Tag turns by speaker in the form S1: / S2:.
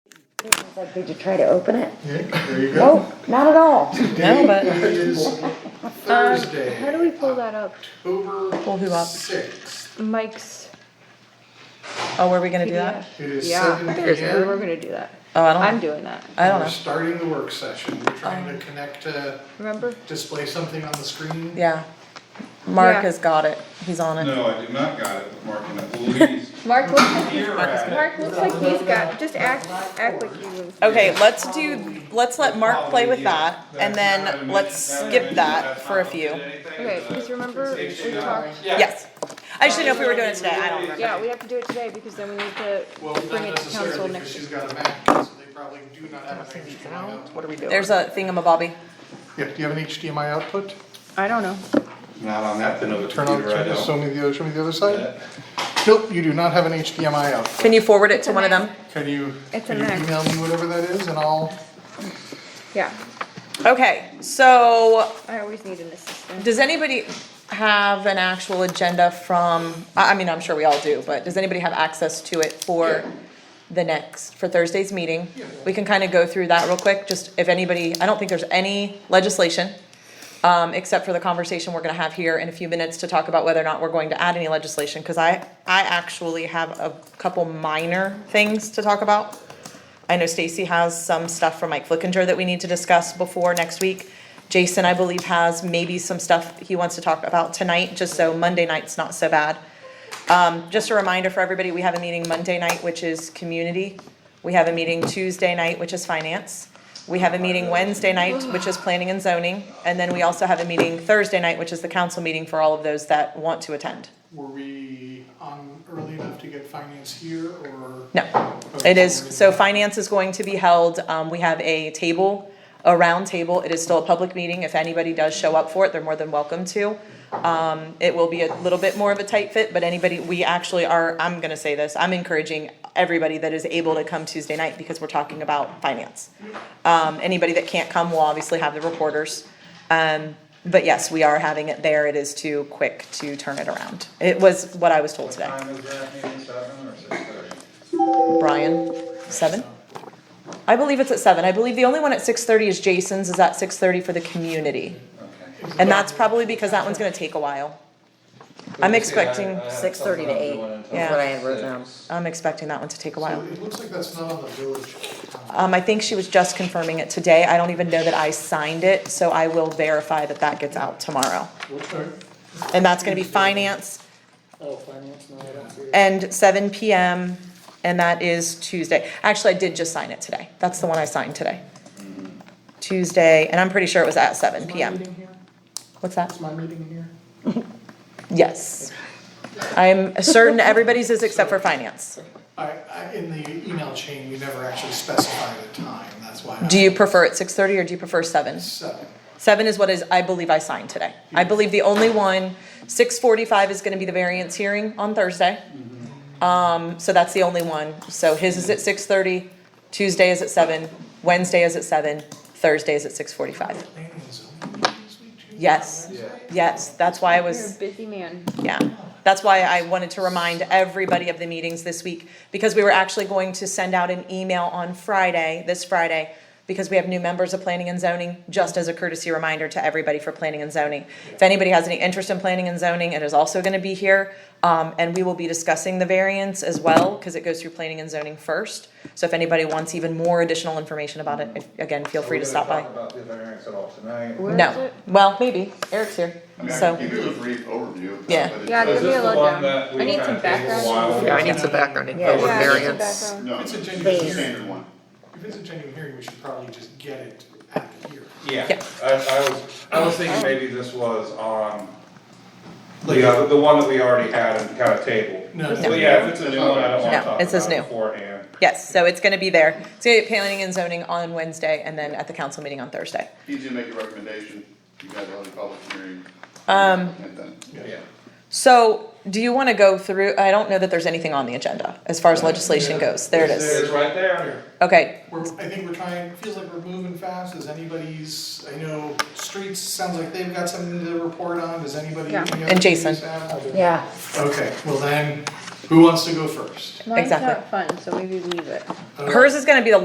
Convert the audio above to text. S1: Like, did you try to open it?
S2: Yeah, there you go.
S1: Nope, not at all.
S2: Today
S3: No, but-
S2: is
S4: How do
S2: Thursday,
S4: we pull that up?
S3: Pull
S2: October
S3: who up?
S2: sixth.
S4: Mike's
S3: Oh, were we gonna do
S4: PDF.
S3: that?
S2: It is
S4: Yeah,
S2: seven
S4: there's,
S2: P
S4: we were
S2: M.
S4: gonna do that.
S3: Oh, I
S4: I'm
S3: don't,
S4: doing that,
S3: I don't
S2: We're
S3: know.
S2: starting the work session. We're trying to connect to
S4: remember?
S2: display something on the screen.
S3: Yeah. Mark
S4: Yeah.
S3: has got it. He's on it.
S5: No, I did not got it, Mark, and please.
S4: Mark looks,
S5: Here at it.
S4: Mark looks like he's got, just act, act like you would.
S3: Okay, let's do, let's let Mark play with that and
S5: That's
S3: then
S5: not
S3: let's
S5: an issue.
S3: skip that
S5: That's
S3: for a
S5: not
S3: few.
S5: anything,
S4: Okay,
S5: but-
S4: because remember, we talked,
S3: Yes. I just didn't know if we were doing it today. I don't remember.
S4: yeah, we have to do it today because then we need to
S2: Well, not
S4: bring it to
S2: necessarily,
S4: council
S2: because
S4: next.
S2: she's got a Mac, so they probably do not have an HDMI output.
S4: What are we doing?
S3: There's a thingamabobby.
S2: Yeah, do you have an HDMI output?
S4: I don't know.
S5: Not on that, then, of the
S2: Turn on,
S5: computer, I
S2: turn- show
S5: don't.
S2: me the, other- show me the other side. Nope, you do not have an HDMI output.
S3: Can you forward it to one of them?
S2: Can you,
S4: It's
S2: can
S4: a
S2: you
S4: Mac.
S2: email me whatever that is and I'll,
S4: Yeah,
S3: Okay, so
S4: I always need an assistant.
S3: does anybody have an actual agenda from, I, I mean, I'm sure we all do, but does anybody have access to it for the next, for Thursday's meeting? We can kind of go through that real quick, just if anybody, I don't think there's any legislation, um, except for the conversation we're gonna have here in a few minutes to talk about whether or not we're going to add any legislation, cause I, I actually have a couple minor things to talk about. I know Stacy has some stuff from Mike Flickinger that we need to discuss before next week. Jason, I believe, has maybe some stuff he wants to talk about tonight, just so Monday night's not so bad. Um, just a reminder for everybody, we have a meeting Monday night, which is community. We have a meeting Tuesday night, which is finance. We have a meeting Wednesday night, which is planning and zoning, and then we also have a meeting Thursday night, which is the council meeting for all of those that want to attend.
S2: were we on early enough to get finance here or?
S3: No, it is, so finance is going to be held, um, we have a table, a round table, it is still a public meeting, if anybody does show up for it, they're more than welcome to. Um, it will be a little bit more of a tight fit, but anybody, we actually are, I'm gonna say this, I'm encouraging everybody that is able to come Tuesday night, because we're talking about finance. Um, anybody that can't come will obviously have the reporters. Um, but yes, we are having it there, it is too quick to turn it around, it was what I was told
S5: What
S3: today.
S5: time is that meeting, seven or six thirty?
S3: Brian, seven? I believe it's at seven, I believe the only one at six thirty is Jason's, is at six thirty for the community.
S5: Okay.
S3: And that's probably because that one's gonna take a while. I'm expecting,
S5: I have
S1: 6:30 to
S5: something I'm
S1: 8,
S5: doing
S1: is
S5: until
S3: what
S1: I had wrote down.
S5: six.
S3: I'm expecting that one to take a
S2: So
S3: while.
S2: it looks like that's not on the village. calendar.
S3: Um, I think she was just confirming it today, I don't even know that I signed it, so I will verify that that gets out tomorrow.
S2: Which are-
S3: And that's gonna be finance
S2: Oh, finance, no, I don't see it.
S3: and seven PM, and that is Tuesday. Actually, I did just sign it today, that's the one I signed today.
S2: Mm-hmm.
S3: Tuesday, and I'm pretty sure it was at seven PM. What's that?
S2: Is my meeting here?
S3: Yes. I'm certain everybody's is except for finance.
S2: I, I, in the email chain, we never actually specified a time, that's why. I-
S3: Do you prefer it six thirty or do you prefer seven?
S2: Seven.
S3: Seven is what is, I believe I signed today. I believe the only one, six forty-five is gonna be the variance hearing on Thursday. Um, so that's the only one. So his is at six thirty, Tuesday is at seven, Wednesday is at seven, Thursday is at six forty-five.
S2: Planning and zoning meeting this week, too?
S3: Yes,
S5: Yeah.
S3: yes, that's why I
S4: You're a
S3: was
S4: busy man.
S3: Yeah, that's why I wanted to remind everybody of the meetings this week, because we were actually going to send out an email on Friday, this Friday, because we have new members of planning and zoning, just as a courtesy reminder to everybody for planning and zoning. If anybody has any interest in planning and zoning, it is also gonna be here, um, and we will be discussing the variance as well, cause it goes through planning and zoning first. So if anybody wants even more additional information about it, again, feel
S5: Are
S3: free
S5: we
S3: to
S5: gonna
S3: stop by.
S5: Talk about the variance at all tonight.
S4: Where is
S3: No,
S4: it?
S3: well, maybe, Eric's here,
S6: I mean, I
S3: so.
S6: can give you a brief overview. of that,
S3: Yeah.
S6: but it
S4: Yeah,
S6: does-
S4: give me a
S5: the one
S4: lowdown.
S5: that
S4: I
S5: we
S4: need
S5: kinda
S4: some
S5: take a
S4: background.
S5: while?
S7: Yeah, I need some background info
S1: Yeah.
S7: on
S1: Yeah,
S4: I need some
S7: variance.
S4: background.
S6: No,
S2: It's a
S6: it's
S2: genuine
S6: a
S2: hearing.
S6: standard one.
S2: If it's a genuine hearing, we should probably just get it at the hearing.
S5: Yeah,
S3: Yeah.
S5: I, I was, I was thinking maybe this was on, the, other- the one that we already had and kind of tabled.
S2: No.
S5: Well, yeah, if it's a new one, I don't
S3: No,
S5: wanna talk
S3: it says
S5: about it
S3: new.
S5: beforehand.
S3: Yes, so it's gonna be there. It's gonna be at planning and zoning on Wednesday and then at the council meeting on Thursday.
S6: Easy to make a recommendation, you guys are on a public hearing.
S3: Um,
S6: And then-
S5: Yeah.
S3: So, do you wanna go through, I don't know that there's anything on the agenda as far as legislation goes. There it
S5: It's
S3: is.
S5: right there.
S3: Okay,
S2: We're, I think we're trying, feels like we're moving fast, is anybody's, I know, streets, sounds like they've got something to report on, does anybody?
S4: Yeah.
S2: any other
S3: And Jason.
S2: communities have?
S1: Yeah,
S2: Okay, well then, who wants to go first?
S4: Mine's
S3: Exactly.
S4: not fun, so maybe leave it.
S2: Uh,
S3: hers is gonna be the